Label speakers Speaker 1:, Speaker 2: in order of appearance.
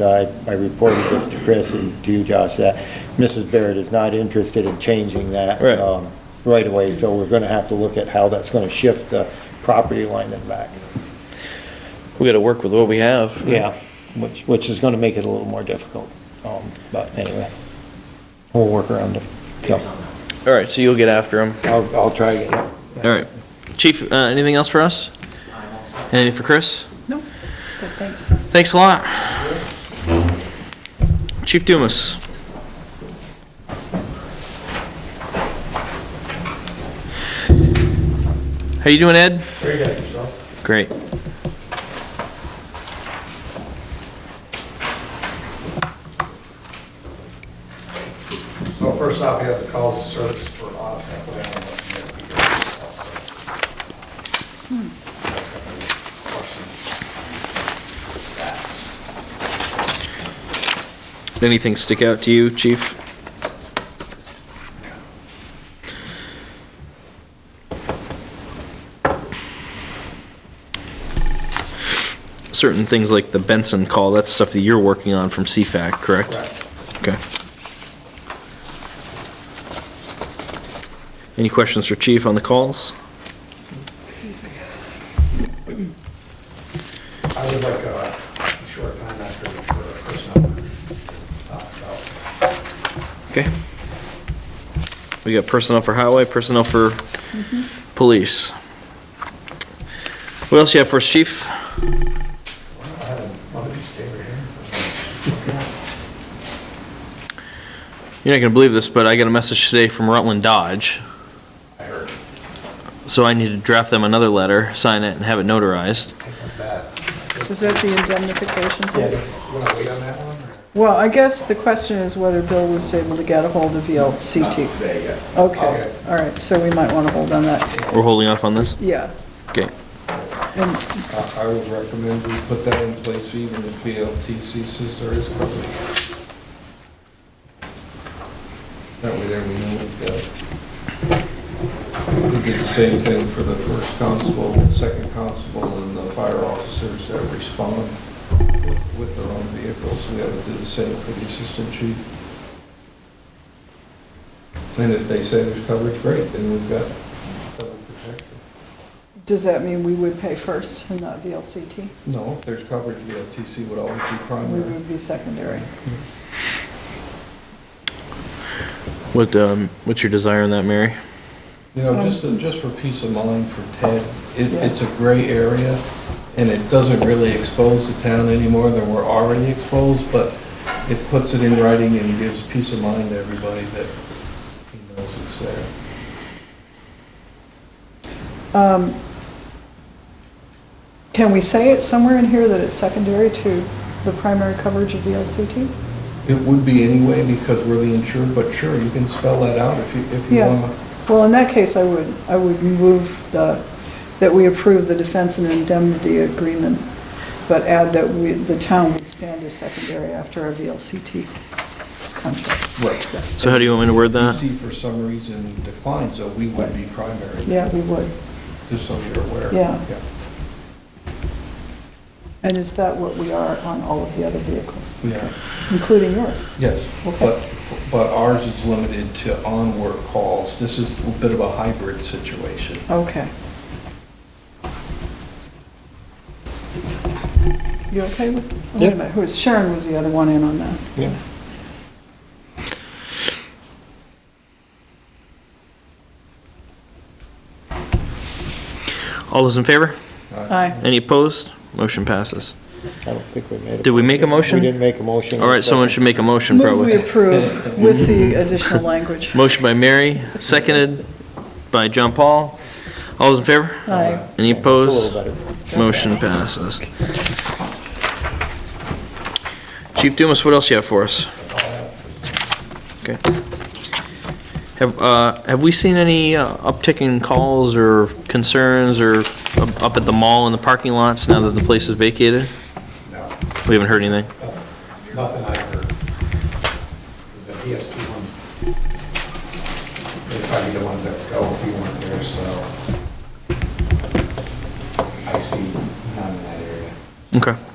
Speaker 1: I, I reported this to Chris and to you, Josh, that Mrs. Barrett is not interested in changing that.
Speaker 2: Right.
Speaker 1: um, Right away, so we're gonna have to look at how that's gonna shift the property line and back.
Speaker 2: We gotta work with what we have.
Speaker 1: Yeah, which, which is gonna make it a little more difficult, um, but anyway, we'll work around it. So,
Speaker 2: All right, so you'll get after him.
Speaker 1: I'll, I'll try again.
Speaker 2: All right. Chief, uh, anything else for us? Anything for Chris?
Speaker 3: Good, thanks.
Speaker 2: Thanks a lot. Chief Dumas. How you doing, Ed?
Speaker 4: Very good, yourself?
Speaker 2: Great.
Speaker 4: So first off, we have the calls of service for us. that way I don't know if
Speaker 2: Anything stick out to you, chief? Certain things like the Benson call, that's stuff that you're working on from CFAC, correct?
Speaker 4: you have
Speaker 2: Okay.
Speaker 4: Questions?
Speaker 2: Any questions for chief on the calls?
Speaker 4: Correct. I would like a short time after for personnel. uh, about
Speaker 2: Okay. We got personnel for highway, personnel for police. What else you have for us, chief?
Speaker 4: I had one of these days
Speaker 2: You're not gonna believe this, but I got a message today from Rutland Dodge,
Speaker 4: I heard,
Speaker 2: so I need to draft them another letter, sign it, and have it notarized.
Speaker 4: I think that's bad.
Speaker 3: Is that the indemnification
Speaker 4: Yeah,
Speaker 3: thing?
Speaker 4: you want to wait on that one? or-
Speaker 3: Well, I guess the question is whether Bill was able to get a hold of VLCT.
Speaker 4: Today, yeah.
Speaker 3: Okay, all right, so we might want to hold on that.
Speaker 2: We're holding off on this?
Speaker 3: Yeah,
Speaker 2: Okay.
Speaker 3: and
Speaker 5: I I would recommend we put that in place even if VLTC says there is coverage. That way there we know we've got. We did the same thing for the first constable, second constable, and the fire officers that respond with their own vehicles. We ought to do the same for the assistant chief. And if they say there's coverage, great, then we've got cover protected.
Speaker 3: does that mean we would pay first and not VLCT?
Speaker 5: No, if there's coverage, VLTC would always be
Speaker 3: We
Speaker 5: primary.
Speaker 3: would be secondary.
Speaker 2: What, um, what's your desire on that, Mary?
Speaker 5: You know, just,
Speaker 3: Um,
Speaker 5: to- just for peace of mind for Ted, it, it's a gray area, and it doesn't really expose the town any more than we're already exposed, but it puts it in writing and gives peace of mind to everybody that he knows it's there.
Speaker 3: Um, Can we say it somewhere in here that it's secondary to the primary coverage of VLCT?
Speaker 5: It would be anyway, because we're the insured, but sure, you can spell that out if you, if you
Speaker 3: Yeah.
Speaker 5: want.
Speaker 3: Well, in that case, I would, I would move the, that we approve the defense and indemnity agreement, but add that we, the town would stand as secondary after our VLCT contract.
Speaker 5: Right.
Speaker 2: So how do you want me to word that?
Speaker 5: DC for some reason declined, so we would be primary,
Speaker 3: Yeah, we would.
Speaker 5: just so you're aware.
Speaker 3: Yeah. And is that what we are on all of the other vehicles,
Speaker 5: Yeah.
Speaker 3: including yours?
Speaker 5: Yes,
Speaker 3: Okay.
Speaker 5: but, but ours is limited to on-work calls. This is a bit of a hybrid situation.
Speaker 3: Okay. You okay with? oh, wait a
Speaker 1: Yep.
Speaker 3: minute, Who was, Sharon was the other one in on that.
Speaker 1: Yeah.
Speaker 2: All those in favor?
Speaker 3: Aye.
Speaker 2: Any opposed? Motion passes.
Speaker 1: I don't think we made a.
Speaker 2: Did we make a motion?
Speaker 1: We didn't make a motion.
Speaker 2: All right, someone should make a motion,
Speaker 3: Move
Speaker 2: probably.
Speaker 3: we approve with the additional language.
Speaker 2: Motion by Mary, seconded by John Paul. All those in favor?
Speaker 3: Aye.
Speaker 2: Any
Speaker 1: It's a little
Speaker 2: opposed?
Speaker 1: better.
Speaker 2: Motion passes. Chief Dumas, what else you have for us? Okay. Have, uh, have we seen any uh, uptick in calls or concerns or up- up at the mall in the parking lots now that the place is vacated?
Speaker 4: No,
Speaker 2: We haven't heard anything?
Speaker 4: nothing I heard. The PSP one, they're probably the ones that go if we weren't there, so. I see none in that area.
Speaker 2: Okay.